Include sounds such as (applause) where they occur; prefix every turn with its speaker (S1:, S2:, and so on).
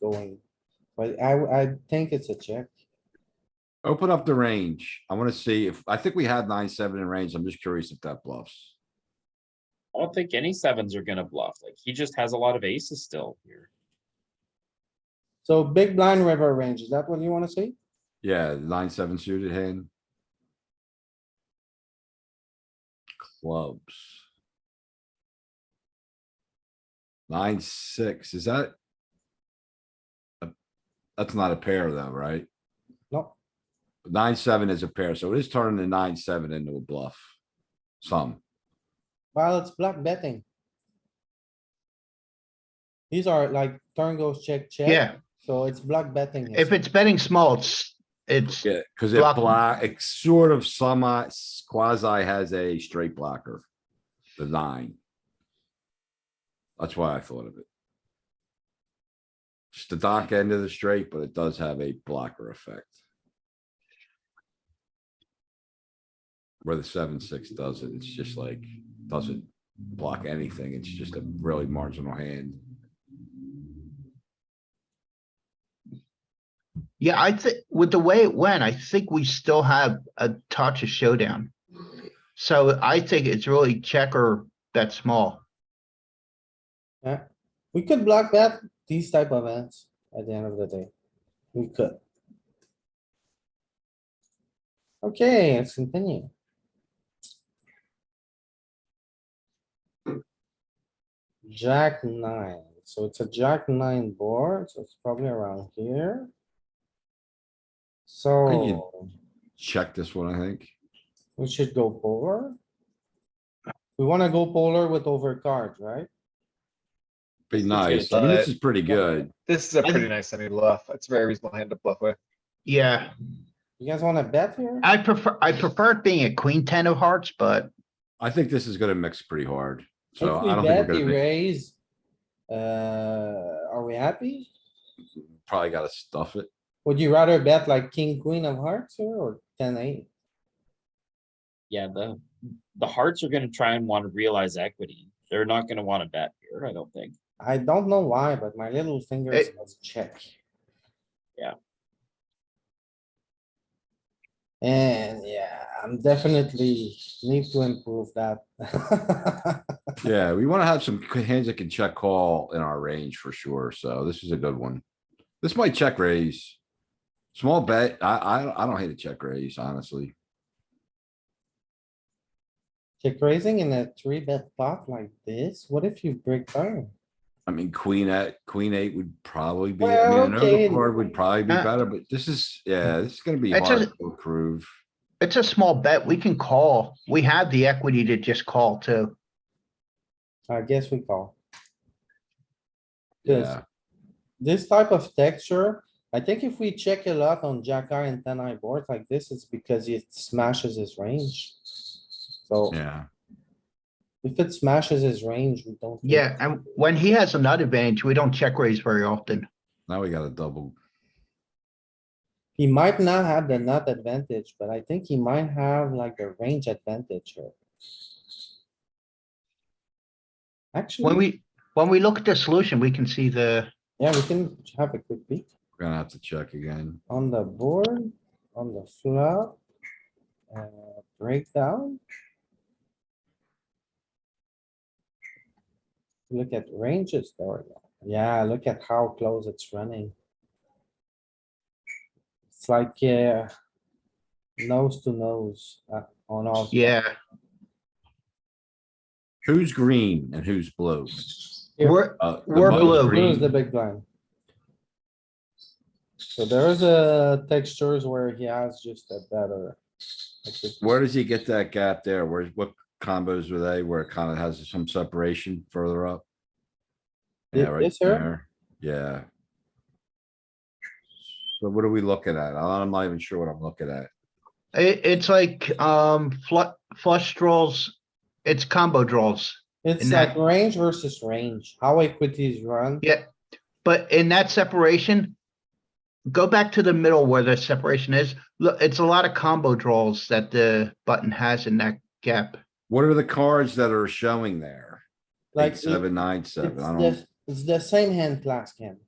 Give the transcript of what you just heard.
S1: going. But I, I think it's a check.
S2: Open up the range. I wanna see if, I think we had nine, seven in range. I'm just curious if that bluffs.
S3: I don't think any sevens are gonna bluff. Like he just has a lot of aces still here.
S1: So big blind river range, is that what you wanna see?
S2: Yeah, nine, seven suited hand. Clubs. Nine, six, is that? a- That's not a pair though, right?
S1: No,
S2: Nine, seven is a pair, so it is turning the nine, seven into a bluff. Some,
S1: well, it's block betting. These are like turn goes check, check.
S4: Yeah,
S1: So it's block betting.
S4: if it's betting small, it's, it's,
S2: yeah, cuz it
S4: Block.
S2: block, it sort of semi quasi has a straight blocker. The nine. That's why I thought of it. It's the dock end of the straight, but it does have a blocker effect. Where the seven, six doesn't, it's just like, doesn't block anything. It's just a really marginal hand.
S4: yeah, I think, with the way it went, I think we still have a touch of showdown. So I think it's really checker bet small.
S1: Yeah, we could block bet these type of hands at the end of the day. We could. Okay, let's continue. Jack nine, so it's a jack nine board, so it's probably around here. So
S2: Check this one, I think.
S1: we should go polar. We wanna go polar with overcard, right?
S2: Be nice.
S5: good.
S2: I mean, this is pretty good.
S5: This is a
S4: I-
S5: pretty nice semi bluff. It's a very reasonable hand to bluff with.
S4: Yeah,
S1: You guys wanna bet here?
S4: I prefer, I prefer it being a queen ten of hearts, but
S2: I think this is gonna mix pretty hard, so
S1: If
S2: I
S1: we
S2: don't think
S1: bet,
S2: we're
S1: we
S2: gonna be,
S1: raise. Uh, are we happy?
S2: probably gotta
S1: (laughs)
S2: stuff it.
S1: Would you rather bet like king, queen of hearts here or ten, eight?
S3: Yeah, the the hearts are gonna try and want to realize equity. They're not gonna want to bet here, I don't think.
S1: I don't know why, but my little finger
S4: It-
S1: says check.
S3: Yeah.
S1: And yeah, I'm definitely need to improve that. (laughs)
S2: Yeah, we wanna have some c- hands that can check call in our range for sure, so this is a good one. This might check raise. Small bet, I, I, I don't hate a check raise, honestly.
S1: Check raising in a three bet pot like this, what if you break down?
S2: I mean, queen at, queen eight would probably be, I mean,
S1: Well,
S2: an
S1: okay.
S2: overcard would probably be
S4: Uh,
S2: better, but this is, yeah, this is gonna be
S4: It's
S2: hard
S4: a-
S2: to approve.
S4: it's a small bet. We can call. We have the equity to just call too.
S1: I guess we call. 'Cause
S2: Yeah,
S1: this type of texture, I think if we check a lot on jack eye and ten eye boards like this, it's because it smashes his range. So
S2: yeah,
S1: if it smashes his range, we don't. think-
S4: Yeah, and when he has an advantage, we don't check raise very often.
S2: now we got a double.
S1: He might not have the nut advantage, but I think he might have like the range advantage here.
S4: When
S1: Actually,
S4: we, when we look at the solution, we can see the,
S1: yeah, we can have a quick peek
S2: We're gonna have to check again.
S1: on the board, on the flop. Uh, breakdown. Look at ranges, there we go. Yeah, look at how close it's running. It's like, uh Nose to nose, uh, on all.
S4: yeah.
S2: Who's green and who's blue?
S1: Here.
S4: We're,
S2: Uh, the
S4: We're
S2: most
S4: blue.
S1: Blue is
S2: green-
S1: the big blind. So there's a textures where he has just a better. like this-
S2: Where does he get that gap there? Where, what combos were they where it kind of has some separation further up? Yeah,
S1: Thi-
S2: right
S1: this here?
S2: there. Yeah. So what are we looking at? I'm not even sure what I'm looking at.
S4: It, it's like, um, flush, flush draws, it's combo draws.
S1: It's
S4: And
S1: like
S4: that-
S1: range versus range, how equities run.
S4: Yeah, but in that separation, go back to the middle where the separation is. Look, it's a lot of combo draws that the button has in that gap.
S2: What are the cards that are showing there?
S1: Like
S2: Eight,
S1: it-
S2: seven, nine,
S1: It's
S2: seven. I don't,
S1: the, it's the same hand class, Ken.